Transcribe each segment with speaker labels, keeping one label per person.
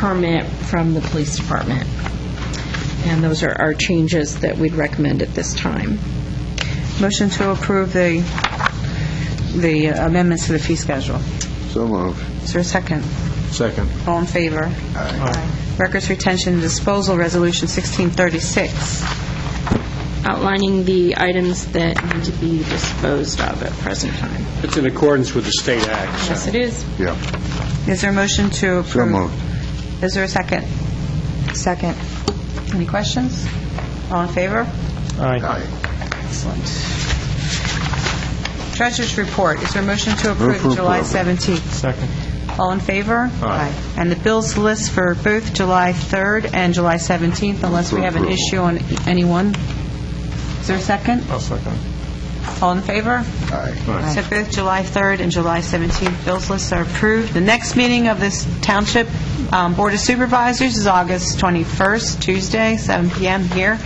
Speaker 1: permit from the police department. And those are our changes that we'd recommend at this time.
Speaker 2: Motion to approve the the amendments to the fee schedule.
Speaker 3: So moved.
Speaker 2: Is there a second?
Speaker 3: Second.
Speaker 2: All in favor? Aye. Records retention and disposal, Resolution 1636.
Speaker 1: Outlining the items that need to be disposed of at present time.
Speaker 4: It's in accordance with the state act, so-
Speaker 1: Yes, it is.
Speaker 3: Yeah.
Speaker 2: Is there a motion to approve?
Speaker 3: So moved.
Speaker 2: Is there a second? Second. Any questions? All in favor?
Speaker 3: Aye.
Speaker 2: Excellent. Treasurers' report, is there a motion to
Speaker 3: Move for
Speaker 2: approve July
Speaker 3: approval.
Speaker 2: 17th?
Speaker 5: Second.
Speaker 2: All in favor? Aye. And the bills list for both July 3rd and July 17th, unless we have an
Speaker 3: Approval.
Speaker 2: issue on any one. Is there a second?
Speaker 5: I'll second.
Speaker 2: All in favor?
Speaker 3: Aye.
Speaker 2: So both July 3rd and July 17th bills lists are approved. The next meeting of this Township um, Board of Supervisors is August 21st, Tuesday, 7 p.m. here.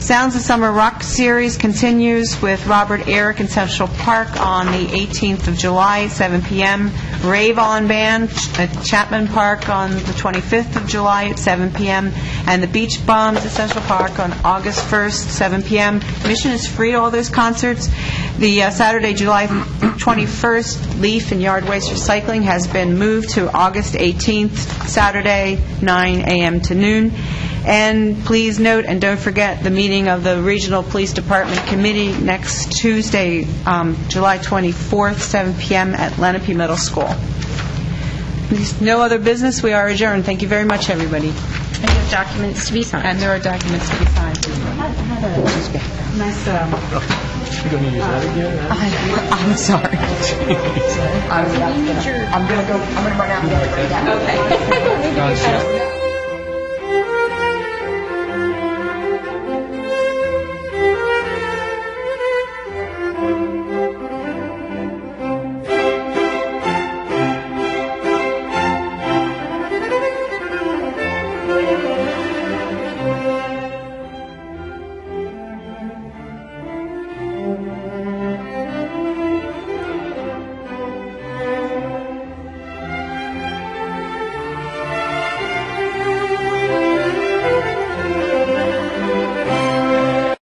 Speaker 2: Sounds of Summer Rock Series continues with Robert Eric in Central Park on the 18th of July, 7 p.m. Rave On Band at Chapman Park on the 25th of July at 7 p.m. And the Beach Bums at Central Park on August 1st, 7 p.m. Admission is free to all those concerts. The uh, Saturday, July 21st, Leaf and Yard Waste Recycling has been moved to August 18th, Saturday, 9 a.m. to noon. And please note, and don't forget, the meeting of the Regional Police Department Committee next Tuesday, um, July 24th, 7 p.m. at Lenape Middle School. There's No other business, we are adjourned. Thank you very much, everybody.
Speaker 1: And there's documents to be signed.
Speaker 2: And there are documents to be signed. Nice, um... I'm sorry. I'm gonna go, I'm gonna run out and get it right now. Okay.